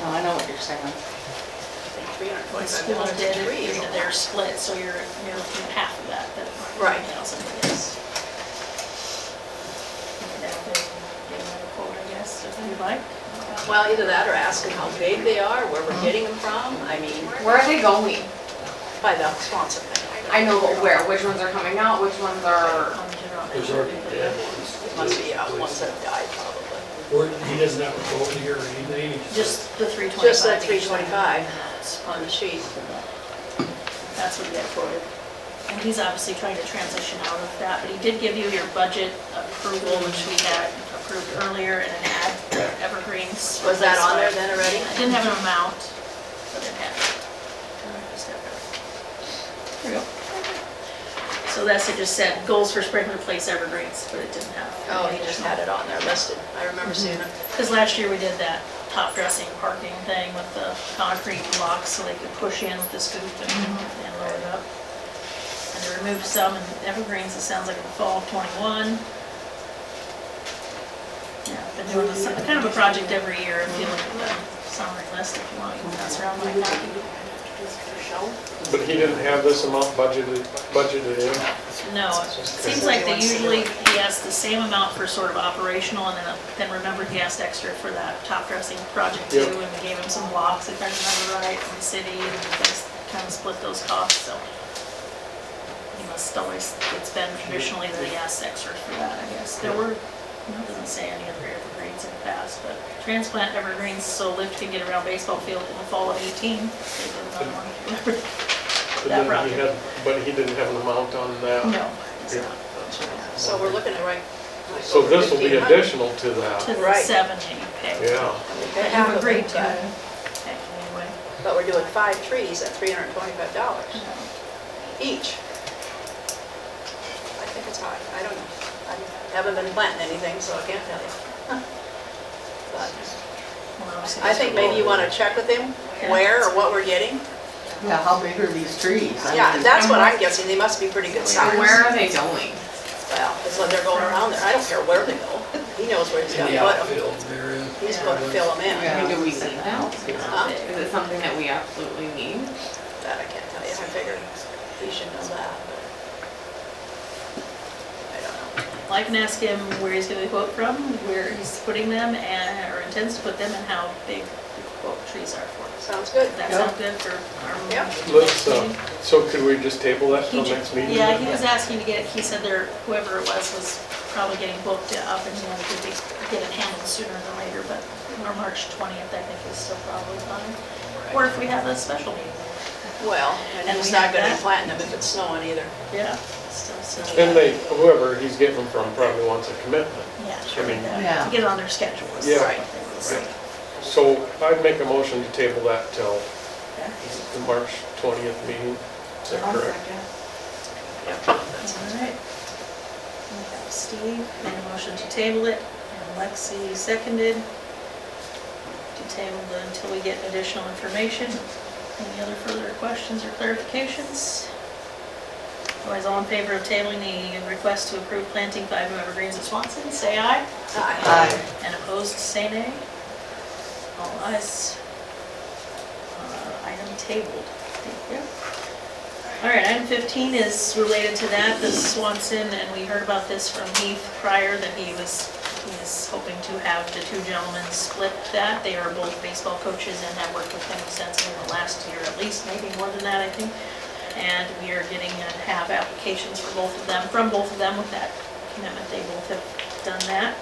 No, I know what you're saying. The school did, it, and they're split, so you're, you're looking at half of that, that Right. nine thousand is. And that they give them a quote, I guess, if you'd like. Well, either that or ask them how big they are, where we're getting them from, I mean, Where are they going? by the Swanson thing. I know, but where, which ones are coming out, which ones are, On general. There's already dead ones. Must be uh, ones that have died probably. Or he doesn't have a quote here or anything, he just, Just the three twenty-five. Just that 325 on the sheet. That's what he had quoted. And he's obviously trying to transition out of that, but he did give you your budget approval, which we had approved earlier and it had evergreens. Was that on there replacement. then already? I didn't have an amount, but it had. it. So that's, it just said goals for spring replace evergreens, but it didn't have. Oh, he just had it on there listed. I Mm-hmm. remember seeing it. Because last year we did that top dressing parking thing with the concrete blocks so they could push in with the scoop and and load it up. And they removed some in evergreens, it sounds like in the fall of '21. Yeah, been doing this, kind of a project every year, if you look at the summary list, if you want, you can pass around my copy. But he didn't have this amount budgeted, budgeted in. No, it seems like they usually, he has the same amount for sort of operational, and then, then remember he asked extra for that top dressing project too, Yep. and we gave him some blocks, if I remember right, from the city, and they s- kind of split those costs, so. He must always, it's been traditionally that he asks extra for that, I guess. There were, it doesn't say any other evergreens in the past, but transplant evergreens so Lyft can get around baseball field in the fall of eighteen. They did another one. But That then he had, but he didn't have an amount on that. No, it's Yeah. not. So we're looking at right. like So over this will be 1,500. additional to to that, the Right. seven that you picked. yeah. They That have you've agreed them, to. but- Okay, anyway. But we're doing five trees at $325 each. I think it's high. I don't know. I haven't been planting anything, so I can't tell you. But Well, obviously I think maybe you want to check with him where or what we're getting. Yeah, how big are these trees? I Yeah, mean, that's what I'm guessing. They must be pretty good size. where are they going? Well, it's when they're going around there. I don't care where they go. He knows where he's in got to the put them. outfield there. in. He's going to fill them Yeah. in. I mean, do we need that? Huh? it's- Is it something that we absolutely need? That I can't tell you. I figured he should know that, but I don't know. Well, I can ask him where he's gonna quote from, where he's putting them and, or intends to put them and how big the quote trees are for. us. Sounds good. Does that Yeah. sound good for our? Yeah. Let's, uh, so could we just table that He till ju- next meeting? Yeah, he was asking to get, he said there, whoever it was, was probably getting booked up and he wanted to be- get it handled sooner than later, but or March twentieth, I think is still probably fine. Or if we have a special meeting, Well, and And he's we not have gonna that? flatten them if it's snowing either. yeah, still, so. And they, whoever he's getting them from probably wants a commitment. Yeah, I mean- yeah, Yeah. to get on their schedules. Yeah. Right. So I'd make a motion to table that till the March twentieth meeting. Is that correct? Alright. We have Steve made a motion to table it, and Lexi seconded to table it until we get additional information. Any other further questions or clarifications? Otherwise, all in favor of tabling the request to approve planting five new evergreens at Swanson, say aye. Aye. Aye. And opposed, say nay. All ayes. Uh, Item tabled. Thank you. All right, item 15 is related to that, the Swanson, and we heard about this from Heath prior, that he was, he is hoping to have the two gentlemen split that. They are both baseball coaches and have worked with him since in the last year, at least, maybe more than that, I think. And we are getting and have applications for both of them, from both of them with that commitment. They both have done that.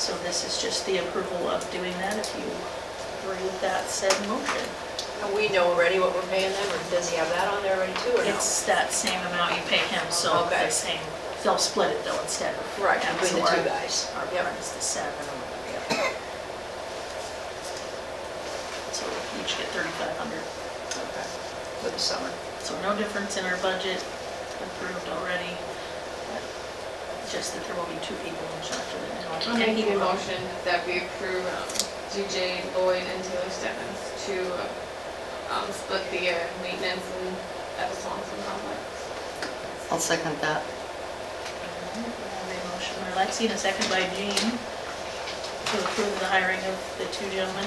So this is just the approval of doing that, if you agree with that said motion. And we know already what we're paying them, or does he have that on there already too, or no? It's that same amount you pay him, so Okay. the same, they'll split it though instead of. Right, Yeah, between the so two our- guys. Our Yep. part is the seven. and the other. So we each get thirty-five hundred. Okay. For the summer. So no difference in our budget approved already. but Just that there will be two people in charge of it now. I'll make a motion that we approve um, DJ Lloyd and Taylor Stevens to um, split the uh, maintenance and at the Swanson complex. I'll second that. Alright, A motion by Lexi and a second by Jean to approve the hiring of the two gentlemen